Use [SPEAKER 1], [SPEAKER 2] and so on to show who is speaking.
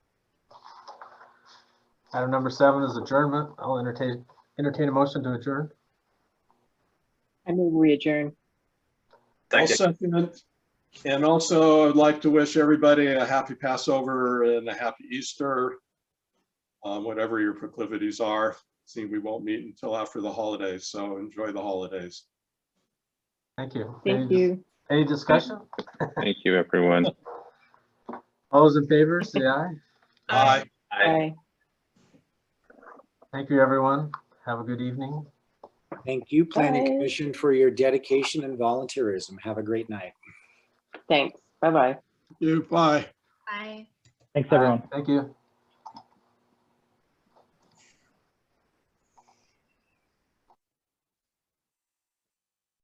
[SPEAKER 1] Item number seven is adjournment. I'll entertain, entertain a motion to adjourn.
[SPEAKER 2] I move we adjourn.
[SPEAKER 3] I'll
[SPEAKER 4] Thank you.
[SPEAKER 3] second it. And also, I'd like to wish everybody a happy Passover and a happy Easter, um, whatever your proclivities are. See, we won't meet until after the holidays, so enjoy the holidays.
[SPEAKER 1] Thank you. Any
[SPEAKER 2] Thank
[SPEAKER 1] dis-
[SPEAKER 2] you.
[SPEAKER 1] Any discussion?
[SPEAKER 5] Thank you, everyone.
[SPEAKER 1] All those in favor, say aye.
[SPEAKER 3] Bye.
[SPEAKER 4] Aye.
[SPEAKER 2] Bye.
[SPEAKER 1] Thank you, everyone. Have a good evening.
[SPEAKER 6] Thank you, Planning
[SPEAKER 2] Bye.
[SPEAKER 6] Commission, for your dedication and volunteerism. Have a great night.
[SPEAKER 2] Thanks. Bye-bye.
[SPEAKER 3] You, bye.
[SPEAKER 7] Bye.
[SPEAKER 8] Thanks, everyone.
[SPEAKER 1] Thank you.